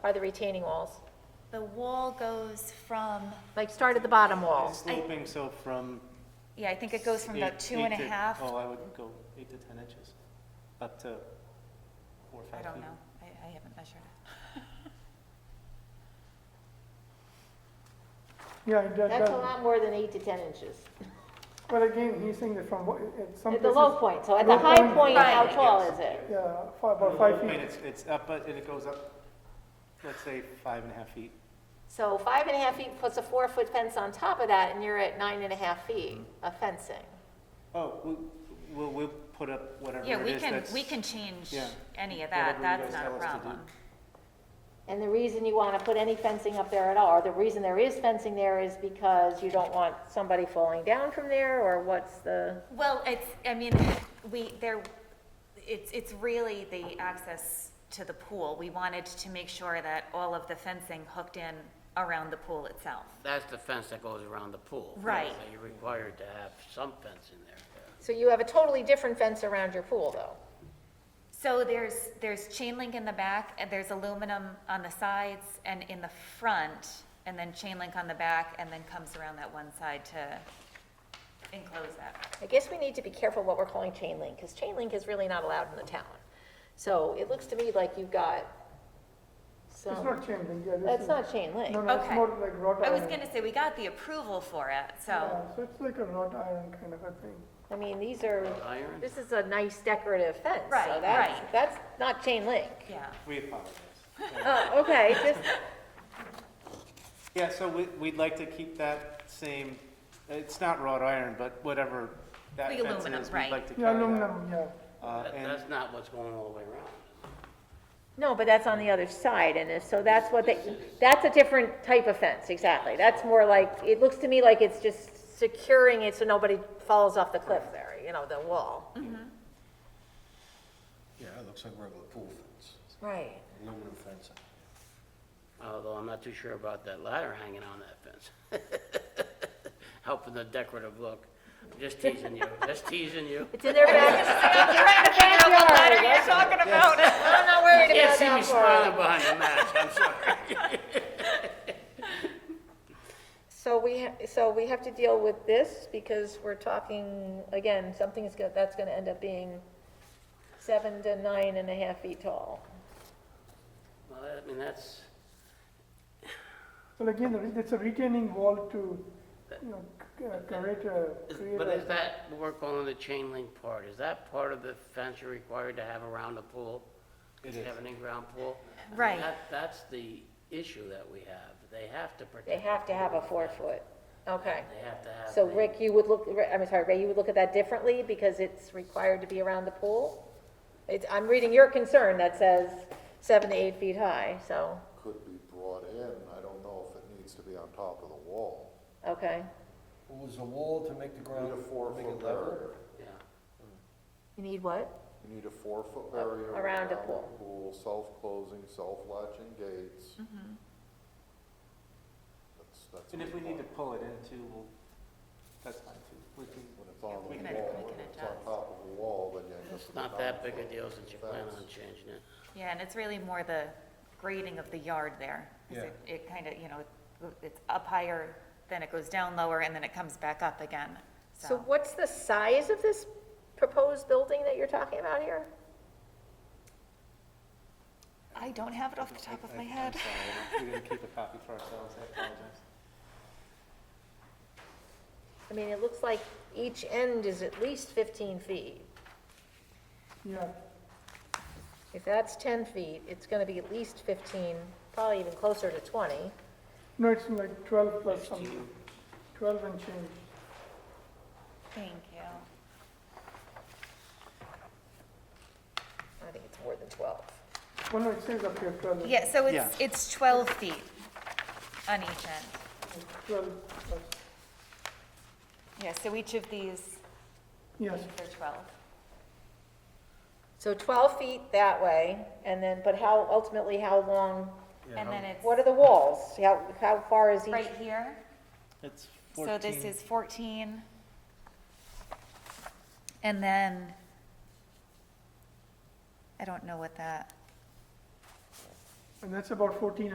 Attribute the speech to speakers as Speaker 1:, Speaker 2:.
Speaker 1: are the retaining walls.
Speaker 2: The wall goes from,
Speaker 1: Like, start at the bottom wall.
Speaker 3: Sloping, so from.
Speaker 2: yeah, I think it goes from about
Speaker 3: eight-
Speaker 2: two and a
Speaker 3: eight to-
Speaker 2: half,
Speaker 3: Oh, I would go eight to 10 inches, up to four, or five
Speaker 2: I
Speaker 3: feet.
Speaker 2: don't know, I, I haven't measured it.
Speaker 4: Yeah, that
Speaker 5: That's a
Speaker 4: does-
Speaker 5: lot more than eight to 10 inches.
Speaker 4: But again, he's saying that from, what- at some
Speaker 5: At the low
Speaker 4: places,
Speaker 5: point, so at the
Speaker 4: Low
Speaker 5: high
Speaker 4: point.
Speaker 5: point, how
Speaker 3: Right.
Speaker 5: tall
Speaker 3: Yes.
Speaker 5: is it?
Speaker 4: yeah, fi- about
Speaker 3: Well,
Speaker 4: five
Speaker 3: I mean,
Speaker 4: feet.
Speaker 3: it's, it's up, but and it goes up, let's say, five and a half feet.
Speaker 1: So five and a half feet puts a four-foot fence on top of that, and you're at nine and a half feet of fencing.
Speaker 3: Oh, we- we'll, we'll put up whatever
Speaker 2: Yeah,
Speaker 3: it
Speaker 2: we
Speaker 3: is
Speaker 2: can,
Speaker 3: that's.
Speaker 2: we can change
Speaker 3: yeah,
Speaker 2: any of
Speaker 3: whatever
Speaker 2: that,
Speaker 3: you
Speaker 2: that's
Speaker 3: guys
Speaker 2: not a
Speaker 3: tell us to do.
Speaker 2: problem.
Speaker 5: And the reason you want to put any fencing up there at all, or the reason there is fencing there is because you don't want somebody falling down from there, or what's the?
Speaker 2: Well, it's, I mean, we, there, it's, it's really the access to the pool. We wanted to make sure that all of the fencing hooked in around the pool itself.
Speaker 6: That's the fence that goes around the pool.
Speaker 2: Right.
Speaker 6: So you're required to have some fence in there.
Speaker 1: So you have a totally different fence around your pool, though.
Speaker 2: So there's, there's chain link in the back, and there's aluminum on the sides and in the front, and then chain link on the back, and then comes around that one side to enclose that.
Speaker 1: I guess we need to be careful what we're calling chain link, because chain link is really not allowed in the town. So it looks to me like you've got
Speaker 4: It's
Speaker 1: some,
Speaker 4: not changing, yeah. this
Speaker 5: That's
Speaker 4: is-
Speaker 5: not chain link.
Speaker 4: No, no, it's
Speaker 2: Okay.
Speaker 4: more like wrought
Speaker 2: I
Speaker 4: iron.
Speaker 2: was gonna say, we got the approval for it, so,
Speaker 4: Yeah, So it's like a wrought iron kind of a thing.
Speaker 1: I mean, these are,
Speaker 6: Iron?
Speaker 1: this is a nice decorative fence. so
Speaker 2: Right,
Speaker 1: that's-
Speaker 2: right.
Speaker 1: That's not chain link.
Speaker 2: yeah.
Speaker 3: We apologize.
Speaker 1: Oh, okay, just,
Speaker 3: Yeah, so we, we'd like to keep that same, it's not wrought iron, but whatever that
Speaker 2: The
Speaker 3: fence
Speaker 2: aluminum,
Speaker 3: is, we'd
Speaker 2: right.
Speaker 3: like to carry
Speaker 4: Yeah,
Speaker 3: that.
Speaker 4: aluminum, yeah.
Speaker 3: Uh,
Speaker 6: That-
Speaker 3: and-
Speaker 6: That's not what's going all the way around.
Speaker 1: no, but that's on the other side, and if- so that's what, they. that's a different type of fence, exactly. That's more like, it looks to me like it's just securing it so nobody falls off the cliff there, you know, the wall.
Speaker 7: Yeah, it looks like regular pool fence,
Speaker 1: Right.
Speaker 7: aluminum fencing.
Speaker 6: Although I'm not too sure about that ladder hanging on that fence. Helping the decorative look. Just teasing you, just teasing you.
Speaker 1: It's in their back,
Speaker 2: talking about
Speaker 1: I'm not worried
Speaker 6: Can't
Speaker 1: about
Speaker 6: see me
Speaker 1: that part.
Speaker 6: smiling behind the mask, I'm sorry.
Speaker 1: So we, ha- so we have to deal with this, because we're talking, again, something's go, that's gonna end up being seven to nine and a half feet tall.
Speaker 6: Well, I mean, that's,
Speaker 4: So again, the re- it's a retaining wall to, you know, c- uh, create a,
Speaker 6: is-
Speaker 4: create
Speaker 6: but is
Speaker 4: a,
Speaker 6: that, we're calling the chain link part, is that part of the fence you're required to have around the pool?
Speaker 3: It
Speaker 6: You
Speaker 3: is.
Speaker 6: have an in-ground pool? I mean,
Speaker 2: Right.
Speaker 6: that- That's the issue that we have. They have to protect.
Speaker 1: They have to have a
Speaker 6: the pool.
Speaker 1: four foot, okay.
Speaker 6: They have to have.
Speaker 1: So
Speaker 6: the-
Speaker 1: Rick, you would look, I'm sorry, Ray, you would look at that differently, because it's required to be around the pool? It's, I'm reading your concern that says seven to eight feet high, so,
Speaker 8: could be brought in. I don't know if it needs to be on top of the wall.
Speaker 1: okay.
Speaker 7: Was a wall to make the
Speaker 8: You
Speaker 7: ground,
Speaker 8: need a
Speaker 7: make
Speaker 8: four-foot
Speaker 7: it level?
Speaker 8: barrier.
Speaker 6: Yeah.
Speaker 1: You need what?
Speaker 8: You need a four-foot barrier.
Speaker 1: Around a pool.
Speaker 8: the Pool, self-closing, self-latching gates. That's, that's.
Speaker 3: And if we
Speaker 8: what
Speaker 3: need to
Speaker 8: want.
Speaker 3: pull it in too, we'll, that's fine too. We can,
Speaker 8: When it's on
Speaker 3: we
Speaker 8: the
Speaker 3: can-
Speaker 8: wall,
Speaker 2: we can
Speaker 8: when it's on
Speaker 2: adjust.
Speaker 8: top of the wall, then you.
Speaker 6: It's not that big a deal since you plan on changing it.
Speaker 2: Yeah, and it's really more the grading of the yard there. 'cause
Speaker 7: Yeah.
Speaker 2: It, it kind of, you know, it's up higher, then it goes down lower, and then it comes back up again,
Speaker 1: So
Speaker 2: so.
Speaker 1: what's the size of this proposed building that you're talking about here?
Speaker 2: I don't have it off the top of my head.
Speaker 3: we're gonna keep a copy for ourselves, I apologize.
Speaker 1: I mean, it looks like each end is at least 15 feet.
Speaker 4: yeah.
Speaker 1: If that's 10 feet, it's going to be at least 15, probably even closer to 20.
Speaker 4: No, it's like twelve plus something, twelve and change.
Speaker 2: Thank you.
Speaker 1: I think it's more than 12.
Speaker 4: Well, no, it says up here twelve.
Speaker 2: Yeah, so
Speaker 3: Yeah.
Speaker 2: it's, it's 12 feet on each end.
Speaker 4: Twelve plus,
Speaker 2: Yeah, so each of these,
Speaker 4: yes,
Speaker 2: they're 12.
Speaker 1: So 12 feet that way, and then, but how, ultimately, how long,
Speaker 2: And then it's
Speaker 1: what are the walls? How, how far is each?
Speaker 2: right here.
Speaker 3: It's
Speaker 2: So this is 14. And then, I don't know what that,
Speaker 4: and that's about fourteen